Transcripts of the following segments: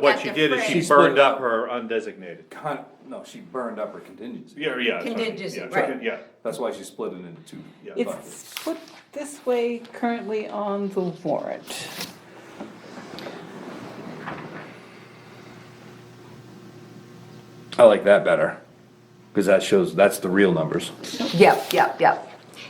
What At she the did is she fringe. burned up her undesignated. Con, no, she burned up her contingency. Yeah, yeah. sorry, Contingency, yeah, right. Yeah, That's why she split it into two Yeah. buckets. It's put this way currently on the warrant. I like that better, cause that shows, that's the real numbers. Yep, yep, yep.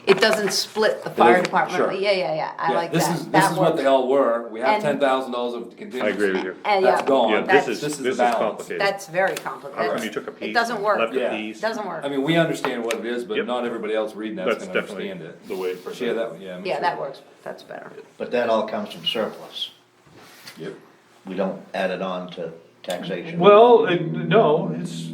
It doesn't split the fire is- sure. department, yeah, yeah, yeah, I like that. This is, this That is what works. they all were, we have And- ten thousand dollars of contingency. I agree with you. And That's yeah, gone. Yeah, this that's- is, This this is the is balance. complicated. That's very How complicated. come you took a piece? It doesn't work, Left a Yeah. piece. doesn't work. I mean, we understand what it is, but Yep. not everybody else reading that's That's gonna definitely understand it. the way it presented. Yeah, that, one, yeah. I'm Yeah, sure. that works, that's better. But that all comes from surplus. Yep. We don't add it on to taxation. Well, it- no, it's,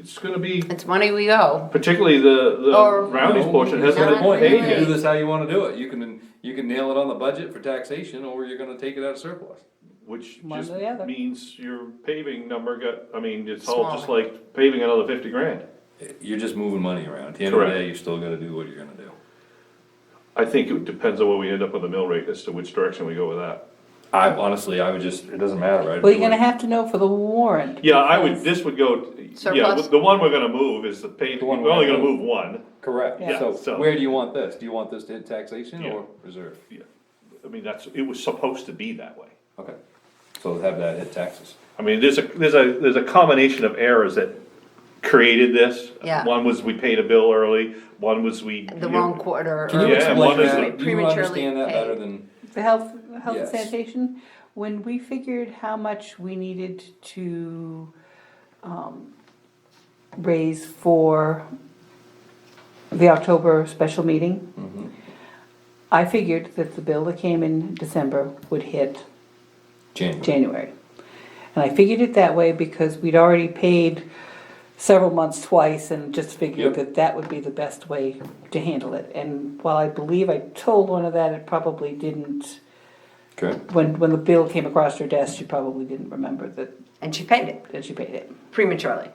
it's gonna be, It's money we owe, particularly the, the Or- roundings portion hasn't That's been my point, you paid can do yet. this how you wanna do it, you can, you can nail it on the budget for taxation, or you're gonna take it out of surplus. Which One just or the other. means your paving number got, I mean, it's all just Smaller. like paving another fifty grand. You're just moving money around, at the end of the Correct. day, you're still gonna do what you're gonna do. I think it depends on where we end up with the mill rate as to which direction we go with that. I honestly, I would just, it doesn't matter, right? Well, you're gonna have to know for the warrant. Yeah, I would, this would go, yeah, Surplus? the one we're gonna move is the paving, The one we're only we're gonna gonna move one. Correct, Yeah, so so- where do you want this? Do you want this to hit taxation Yeah. or reserve? Yeah, I mean, that's, it was supposed to be that way. Okay, so have that hit taxes. I mean, there's a, there's a, there's a combination of errors that created this. Yeah. One was we paid a bill early, one was we. the wrong quarter. Can you Yeah, and explain one is that? Do you prematurely understand that paid. better than, The health, health and Yes. sanitation, when we figured how much we needed to, um, raise for the October special meeting, Mm-hmm. I figured that the bill that came in December would hit January? January. And I figured it that way because we'd already paid several months twice and just Yep. figured that that would be the best way to handle it. And while I believe I told one of that, it probably didn't, Okay, when, when the bill came across her desk, she probably didn't remember that, And she paid it that she paid it. prematurely.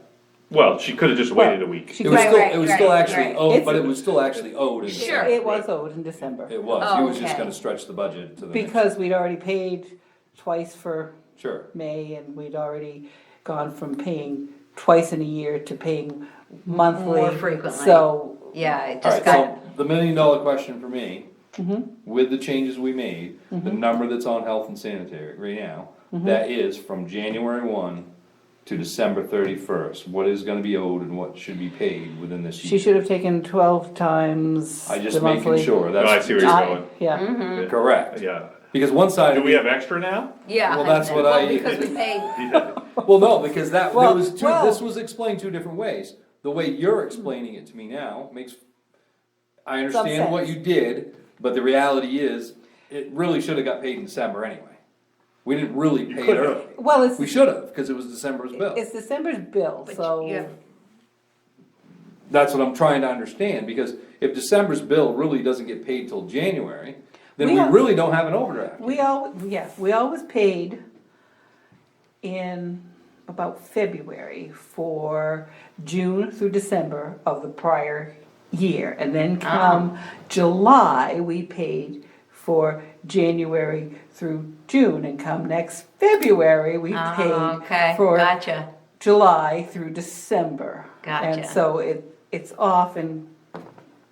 Well, she could've just waited a week. She it was Right, could- still, right, it was still right, actually right. owed, It's- but it was still actually owed in Sure. December. It was owed in December, It was, he was Okay. just gonna stretch the budget to the next, because we'd already paid twice for sure, May, and we'd already gone from paying twice in a year to paying monthly. More frequently. So Yeah, it just alright, got, so the million dollar question for me, with the changes we made, the number that's on health and sanitary right now, that is from January one to December thirty-first, what is gonna be owed and what should be paid within this year? She should have taken twelve times. I the just making monthly. sure, No, I that's see where you're I- going. Mm-hmm. Yeah, correct, Yeah. because one side. Do of we me- have extra now? yeah. Well, that's what well, I- Because we paid, Well, no, because that, there Well, was two, well- this was explained two different ways. The way you're explaining it to me now makes, I understand what you did, but the reality is, it really should've got paid in December anyway. We didn't really pay it could've. early. well, We it's, should've, cause it was December's bill. it's December's bill, But yeah. so, That's what I'm trying to understand, because if December's bill really doesn't get paid till January, then We we have- really don't have an overdraft. we all, yes, we always paid in about February for June through December of the prior year, and then Ah. come July, we paid for January through June, and come next February, we Oh, okay, paid for gotcha, July through December. Gotcha. And so it, it's off and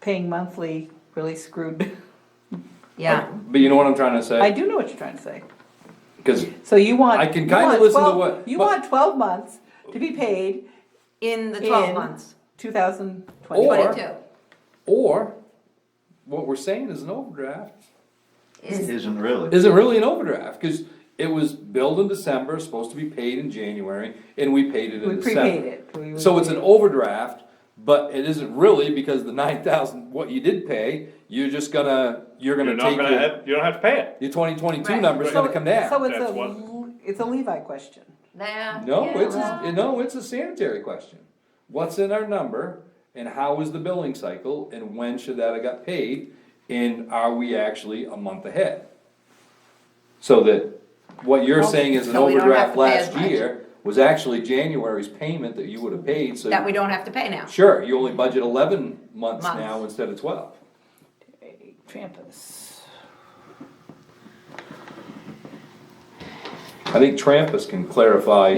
paying monthly really screwed. yeah. But you know what I'm trying to I say? do know what you're trying to say. Cause So you want. I can you kinda want listen to 12 what- You but- want twelve months to be paid In the in twelve months, two thousand twenty. Or- twenty-two. Or, what we're saying is an overdraft Is, Isn't really. isn't really an overdraft, cause it was billed in December, supposed to be paid in January, and we paid it We in prepaid December. it. We- we- So it's an overdraft, but it isn't really, because the nine thousand, what you did pay, you're just gonna, you're You're gonna not take gonna your, have, you don't have to pay it. your twenty twenty-two Right. number's gonna come So down. it's That's a, what- l- it's a Levi question. nah, No, yeah, it's, well, a- no, it's a sanitary question. What's in our number, and how is the billing cycle, and when should that have got paid, and are we actually a month ahead? So that, what you're saying is an So we don't have overdraft to pay as last much. year was actually January's payment that you would have paid, so. That we don't have to pay now. Sure, you only budget eleven months Months. now instead of twelve. Trampus. I think Trampus can clarify